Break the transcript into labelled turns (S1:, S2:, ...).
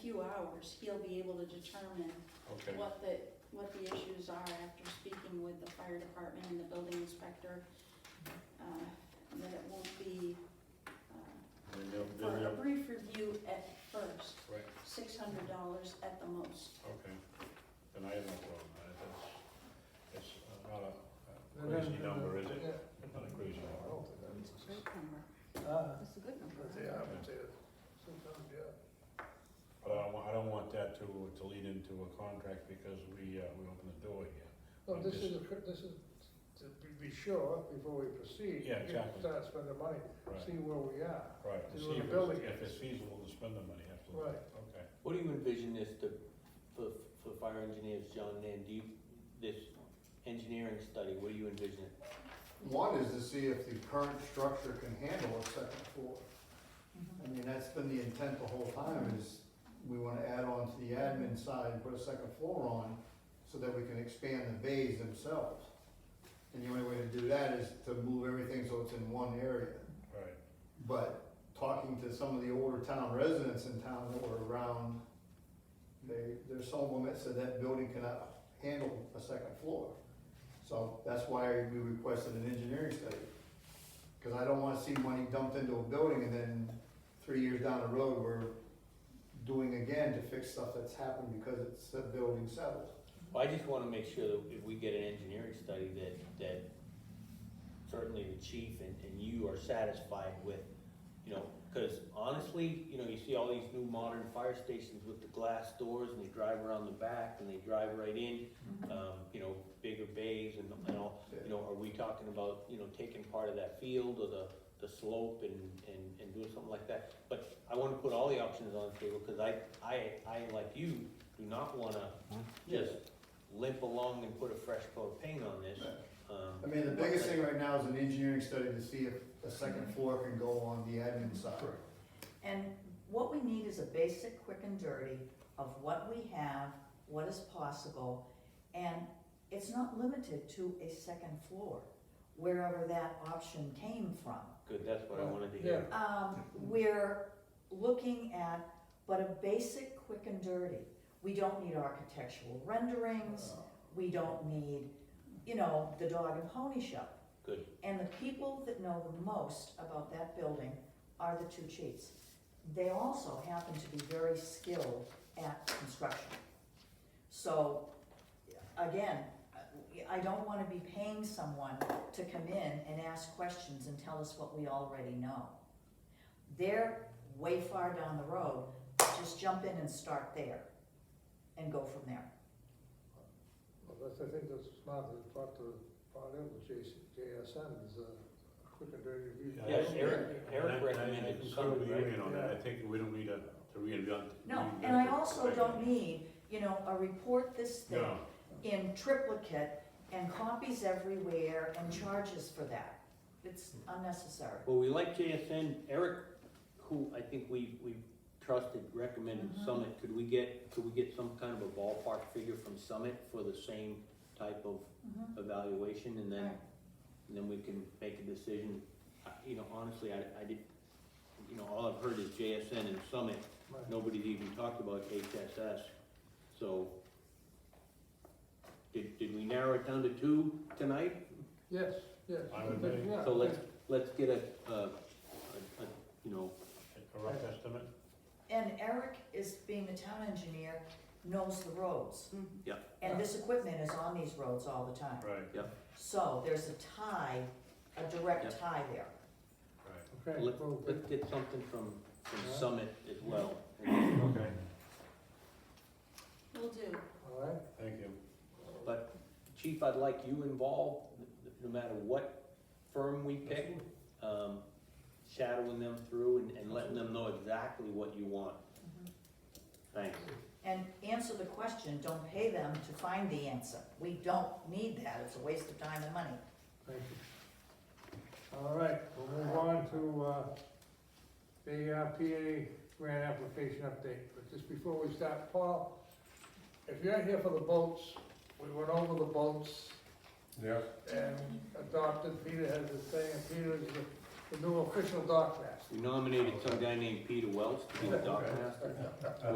S1: few hours, he'll be able to determine
S2: Okay,
S1: what the, what the issues are after speaking with the fire department and the building inspector. uh, That it won't be, uh,
S2: then they'll, then
S1: for a
S2: they'll,
S1: brief review at first,
S2: right,
S1: six hundred dollars at the most.
S2: okay. Then I have no problem, I, that's, that's not a- a
S3: And then,
S2: crazy
S3: uh,
S2: number, is it?
S3: yeah.
S2: Not a crazy
S3: I
S2: number.
S3: don't think that is-
S4: Great number,
S3: Ah,
S4: that's a good number.
S3: but yeah, I would say that sometimes, yeah.
S2: But I don't, wa- I don't want that to, to lead into a contract because we, uh, we open the door here.
S3: No,
S2: I'm
S3: this
S2: just-
S3: is, a cr- this is, to be- be sure, before we proceed.
S2: Yeah,
S3: we
S2: exactly.
S3: Start spending money,
S2: Right,
S3: see where we are.
S2: right. To see
S3: They're
S2: if
S3: building
S2: it's,
S3: it.
S2: if it's feasible to spend the money, absolutely.
S3: Right.
S2: Okay.
S5: What do you envision this to, for, for fire engineers, John, and do you, this engineering study, what do you envision? it?
S6: One is to see if the current structure can handle a second floor. I mean, that's been the intent the whole time, is we wanna add on to the admin side and put a second floor on so that we can expand the bays themselves. And the only way to do that is to move everything so it's in one area.
S2: Right,
S6: But talking to some of the older town residents in town that were around, they, there's some of them that said that building cannot handle a second floor. So that's why we requested an engineering study. Cause I don't wanna see money dumped into a building and then three years down the road, we're doing again to fix stuff that's happened because it's the building settled.
S5: Well, I just wanna make sure that if we get an engineering study that, that certainly the chief and, and you are satisfied with, you know, cause honestly, you know, you see all these new modern fire stations with the glass doors and they drive around the back and they drive right in, um, you know, bigger bays and, and all, You know, are we talking about, you know, taking part of that field or the, the slope and, and, and doing something like that? But I wanna put all the options on the table, cause I, I, I, like you, do not wanna just limp along and put a fresh coat of paint on this.
S6: I
S5: Um,
S6: mean, the biggest thing right now is an engineering study to see if a second floor can go on the admin side.
S7: And what we need is a basic, quick and dirty of what we have, what is possible, and it's not limited to a second floor, wherever that option came from.
S5: good, that's what I wanted to hear.
S7: Um, we're looking at, but a basic, quick and dirty. We don't need architectural
S3: Uh,
S7: renderings,
S3: Uh-huh.
S7: we don't need, you know, the dog and pony show.
S5: Good.
S7: And the people that know the most about that building are the two chiefs. They also happen to be very skilled at construction. So, again, I don't wanna be paying someone to come in and ask questions and tell us what we already know. They're way far down the road, just jump in and start there and go from there.
S3: Well, that's, I think that's smart, that's part of, part of the JS, JSN is a quick and dirty review.
S2: Yeah,
S5: Yes, Eric, Eric
S2: And I- I- I
S5: recommended
S2: can
S5: some,
S2: certainly
S5: right?
S2: weigh in on that, I think we don't need a, to reinvent.
S7: No,
S2: reinvent
S7: and I
S2: the
S7: also
S2: thing.
S7: don't need, you know, a report this thick
S2: No,
S7: in triplicate and copies everywhere and charges for that. It's
S5: Mm-hmm.
S7: unnecessary.
S5: Well, we like JSN, Eric, who I think we, we trusted, recommended
S7: Mhm.
S5: Summit, could we get, could we get some kind of a ballpark figure from Summit for the same type of
S7: Mhm.
S5: evaluation and then,
S7: Right.
S5: and then we can make a decision. I- You know, honestly, I, I did, you know, all I've heard is JSN and Summit,
S3: Right.
S5: nobody's even talked about HSS, so. Did, did we narrow it down to two tonight?
S3: Yes, yes.
S2: I would
S3: think-
S2: be.
S3: yeah,
S5: So
S3: I
S5: let's,
S3: think-
S5: let's get a, a, a, a, you know,
S2: a rough estimate,
S7: And Eric is, being the town engineer, knows the roads.
S5: Yeah.
S7: And this equipment is on these roads all the time.
S2: right,
S7: So there's a tie, a direct
S5: Yeah.
S7: tie there.
S2: right,
S3: Okay.
S5: Let,
S3: well,
S5: let's get something from, from
S3: Yeah.
S5: Summit as well.
S2: okay,
S1: Will do.
S3: All right.
S2: thank you.
S5: But Chief, I'd like you involved, n- no matter what firm we pick, um, shadowing them through and, and letting them know exactly what you want. Thanks.
S7: And answer the question, don't pay them to find the answer. We don't need that, it's a waste of time and money.
S3: Thank you. All right, we'll move on to, uh, the uh, PA grant application update, but just before we start, Paul, if you're here for the boats, we went over the boats
S2: Yeah.
S3: and adopted, Peter has his thing, and Peter is the- the new official dock master.
S5: We nominated some guy named Peter Welch to be the dock master.